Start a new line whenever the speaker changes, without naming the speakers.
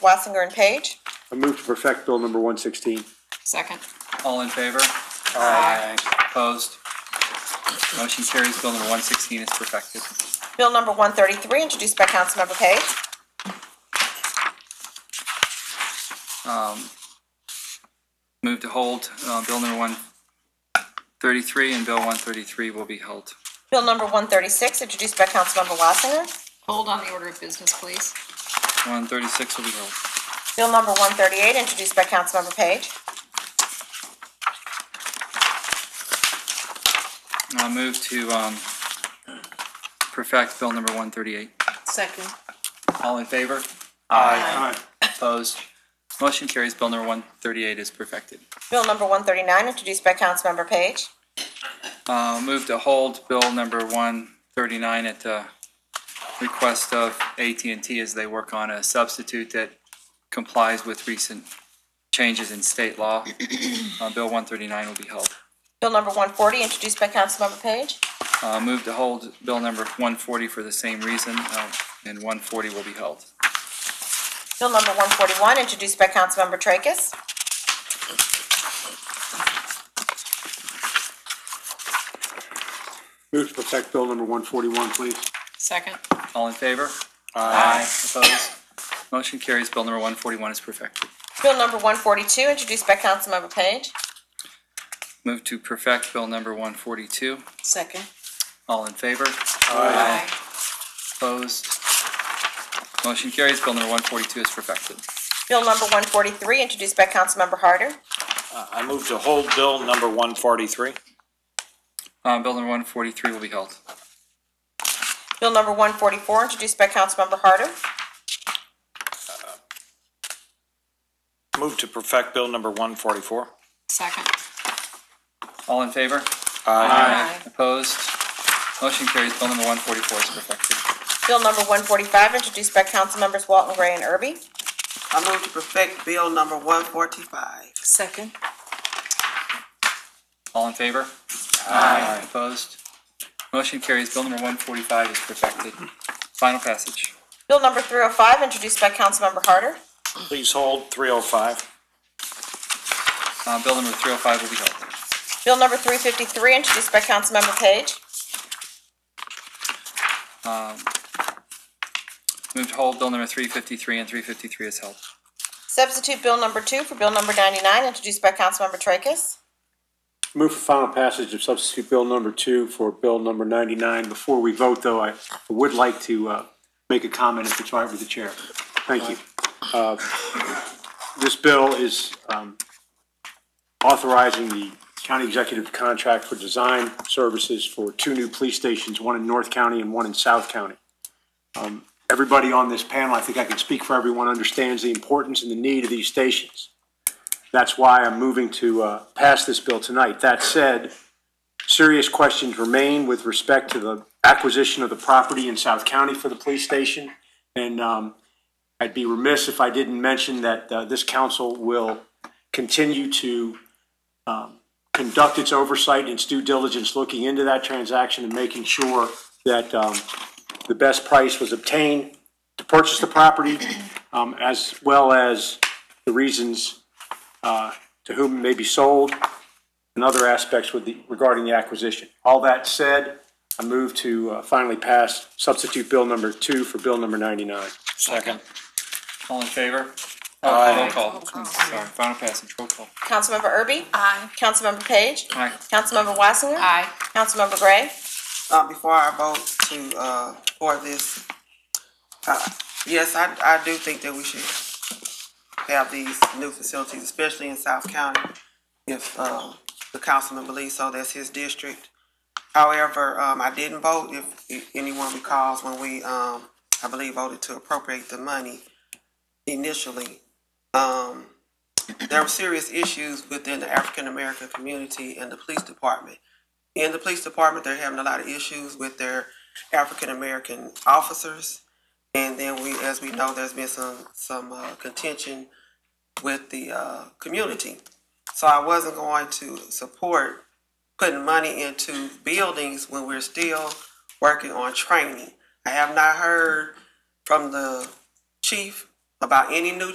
Wassinger and Page.
I move to perfect Bill number 116.
Second.
All in favor? Opposed? Motion carries. Bill number 116 is perfected.
Bill number one thirty-three, introduced by Councilmember Page.
Move to hold uh, Bill number 133, and Bill 133 will be held.
Bill number one thirty-six, introduced by Councilmember Wassinger.
Hold on the order of business, please.
136 will be held.
Bill number one thirty-eight, introduced by Councilmember Page.
I'll move to um, perfect Bill number 138.
Second.
All in favor?
Aye.
Opposed? Motion carries. Bill number 138 is perfected.
Bill number one thirty-nine, introduced by Councilmember Page.
Uh, Move to hold Bill number 139 at the request of at and T as they work on a substitute that complies with recent changes in state law. Uh, Bill 139 will be held.
Bill number one forty, introduced by Councilmember Page.
Uh, Move to hold Bill number 140 for the same reason, uh, and 140 will be held.
Bill number one forty-one, introduced by Councilmember Tracus.
Move to perfect Bill number 141, please.
Second.
All in favor? Aye. Opposed? Motion carries. Bill number 141 is perfected.
Bill number one forty-two, introduced by Councilmember Page.
Move to perfect Bill number 142.
Second.
All in favor?
Aye.
Opposed? Motion carries. Bill number 142 is perfected.
Bill number one forty-three, introduced by Councilmember Harder.
I move to hold bill number one forty-three.
Uh, Bill number 143 will be held.
Bill number one forty-four, introduced by Councilmember Harder.
Move to perfect bill number one forty-four.
Second.
All in favor?
Aye.
Opposed? Motion carries. Bill number 144 is perfected.
Bill number one forty-five, introduced by Councilmembers Walton Gray and Irby.
I move to perfect bill number one forty-five.
Second.
All in favor? Aye. Opposed? Motion carries. Bill number 145 is perfected. Final passage.
Bill number three oh five, introduced by Councilmember Harder.
Please hold three oh five.
Uh, Bill number 305 will be held.
Bill number three fifty-three, introduced by Councilmember Page.
Move to hold Bill number 353 and 353 is held.
Substitute bill number two for bill number ninety-nine, introduced by Councilmember Tracus.
Move for final passage of substitute Bill number 2 for Bill number 99. Before we vote, though, I would like to uh, make a comment if it's all right with the chair. Thank you. Uh, This bill is um, authorizing the county executive to contract for design services for two new police stations, one in North County and one in South County. Um, Everybody on this panel, I think I can speak for everyone, understands the importance and the need of these stations. That's why I'm moving to uh, pass this bill tonight. That said, serious questions remain with respect to the acquisition of the property in South County for the police station. And um, I'd be remiss if I didn't mention that uh, this council will continue to um, conduct its oversight, its due diligence, looking into that transaction and making sure that um, the best price was obtained to purchase the property, um, as well as the reasons uh, to whom it may be sold, and other aspects with the, regarding the acquisition. All that said, I move to uh, finally pass substitute bill number two for bill number 99.
Second.
All in favor?
Aye.
Roll
Roll
call.
call.
Sorry, final passage, roll call.
Councilmember Irby.
Aye.
Councilmember Page.
Aye.
Councilmember Wassinger.
Aye.
Councilmember Gray.
Uh, before I vote to, uh, for this, uh, yes, I, I do think that we should have these new facilities, especially in South County, if, um, the councilman believes so, that's his district. However, um, I didn't vote, if, if anyone recalls, when we, um, I believe voted to appropriate the money initially. Um, there were serious issues within the African-American community and the police department in the police department, they're having a lot of issues with their African American officers. And then we, as we know, there's been some, some uh, contention with the uh, community. So I wasn't going to support putting money into buildings when we're still working on training. I have not heard from the chief about any new